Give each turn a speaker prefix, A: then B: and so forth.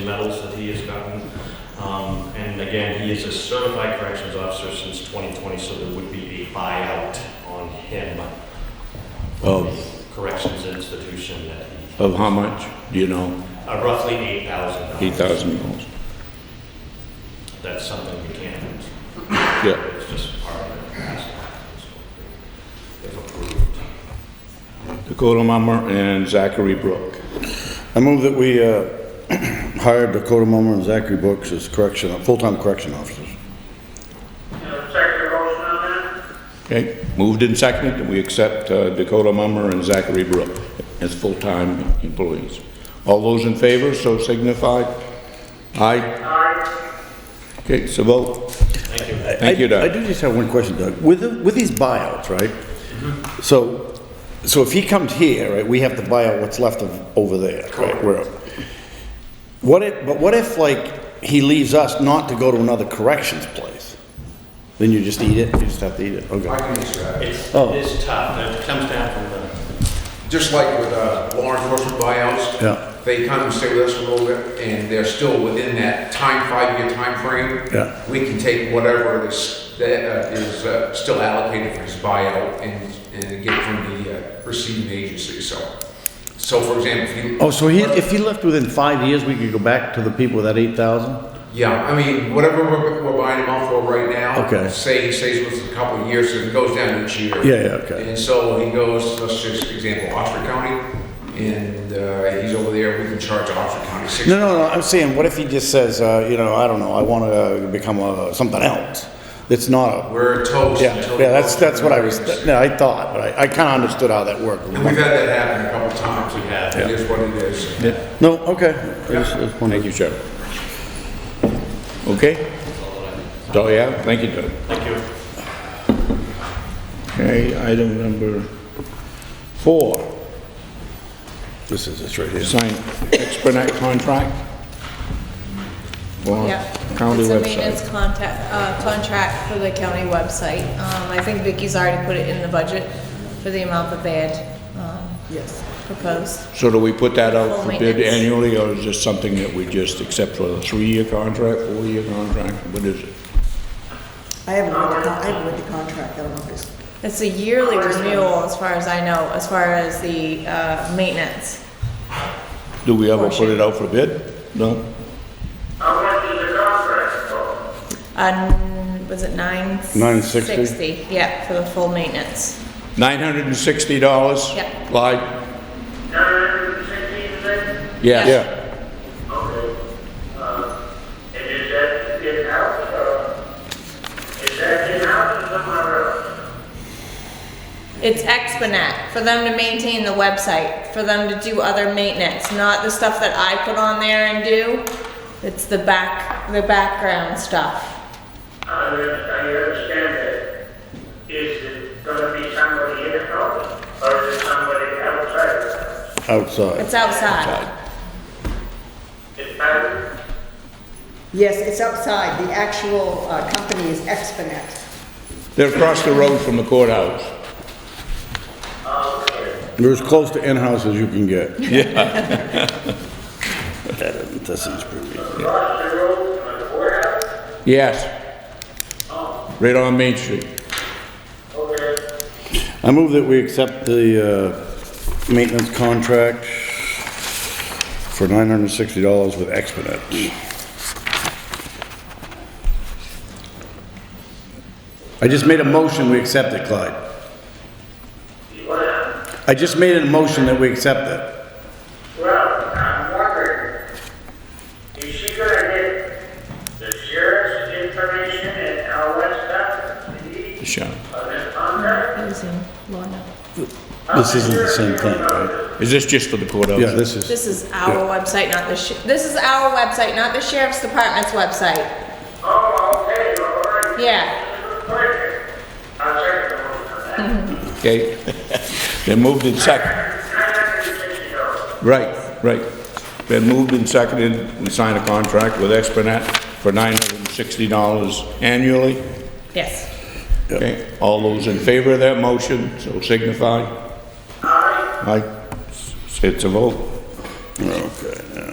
A: medals that he has gotten. Um, And again, he is a certified corrections officer since 2020, so there would be a buyout on him for
B: Of-
A: the corrections institution that he,
B: Of how much? Do you know?
A: uh, roughly $8,000.
B: Oh. Eight thousand dollars.
A: That's something we can't,
B: Yeah.
A: it's just part of the past. If approved.
B: Dakota Mummer and Zachary Brook.
C: I move that we uh, hire Dakota Mummer and Zachary Brooks as correction, full-time correction officers.
D: Second your motion on that?
B: Okay, moved and seconded, that we accept uh, Dakota Mummer and Zachary Brook as full-time employees. All those in favor, so signify. Aye.
D: Aye.
B: Okay, so vote.
A: Thank you.
B: Thank you,
C: I- I
B: Doug.
C: do just have one question, Doug. With, the- with these buyouts, right? Mm-hmm. So, so if he comes here, right, we have to buy out what's left of, over there, right? Where, what if, but what if, like, he leaves us not to go to another corrections place? Then you just eat it, you just have to eat it,
E: I
C: okay.
E: can answer that.
A: It's,
C: Oh.
A: it is tough, and it comes down from the
E: Just like with uh, law enforcement buyouts.
C: Yeah.
E: They come and stay with us for a little bit, and they're still within that time, five-year time frame.
C: Yeah.
E: We can take whatever is, that uh, is uh, still allocated for his buyout and, and get it from the uh, receiving agency, so. So for example, if you.
C: Oh, so he, if he left within five years, we could go back to the people with that eight thousand?
E: Yeah, I mean, whatever we're, we're buying him off for right now.
C: Okay.
E: Say he stays with us a couple of years, so it goes down each year.
C: Yeah, yeah, okay.
E: And so he goes, let's just example, Oxford County, and uh, he's over there, we can charge Oxford County six.
C: No, no, no, I'm saying, what if he just says, uh, you know, I don't know, I wanna become a, something else? It's not a
E: We're toast
C: Yeah,
E: until.
C: yeah, that's, that's what I was, no, I thought, but I, I kinda understood how that worked.
E: And we've had that happen a couple of times. We
A: have.
E: It is what it is.
C: No, okay. I just- I just wondered.
B: Thank you, Sheriff. Okay? So, yeah, thank you, Doug. Thank you. Okay, item number four,
C: This is, this right here.
B: sign Exponet contract. for
F: Yeah.
B: County
F: It's a
B: website.
F: maintenance contact, uh, contract for the county website. Um, I think Vicky's already put it in the budget for the amount that they had, um, proposed.
B: So do we put that out
F: Full
B: for bid
F: maintenance.
B: annually, or is this something that we just accept for a three-year contract, four-year contract? What is it?
G: I haven't read the, con- I haven't read the contract, I don't know if it's,
F: It's a yearly renewal, as far as I know, as far as the, uh, maintenance.
B: Do we ever put it out for bid? No?
D: How much is the contract for?
F: Um, was it nine?
C: 960?
F: Sixty, yeah, for the full maintenance.
B: $960?
F: Yep.
B: Clyde?
D: Nine sixteen, then?
B: Yes.
C: Yeah,
D: Okay. Uh, And is that in-house, or is that in-house or somewhere else?
F: It's Exponet, for them to maintain the website, for them to do other maintenance, not the stuff that I put on there and do. It's the back, the background stuff.
D: I under- I understand that. Is it gonna be somebody in-house, or is it somebody outside of the house?
C: outside.
F: It's outside.
D: It's private?
G: yes, it's outside, the actual uh, company is Exponet.
B: They're across the road from the courthouse.
C: You're as close to in-house as you can get. Yeah. That, doesn't- that seems pretty good.
D: Across the road from the warehouse?
B: Yes. Right on Main Street.
D: Okay.
C: I move that we accept the, uh, maintenance contract for nine hundred and sixty dollars with Exponet. I just made a motion, we accept it, Clyde.
D: You wanna-
C: I just made a motion that we accept it.
D: Well, I'm wondering, is she gonna get the sheriff's information and all that stuff? that she needs
B: Sure.
D: On this contract?
F: Using Lorna.
C: This isn't the same thing, right?
B: Is this just for the courthouse?
C: Yeah, this is,
F: This is our website, not the, sh- this is our website, not the sheriff's department's website.
D: Oh, okay, all right.
F: Yeah.
D: Perfect. I'll check the one on that.
B: Okay. They moved in second.
D: Nine hundred and sixty dollars.
B: Right, right. Been moved and seconded, we signed a contract with Exponet for $960 annually.
F: Yes.
B: Okay, all those in favor of that motion, so signify. Aye. Aye. It's a vote.
C: okay.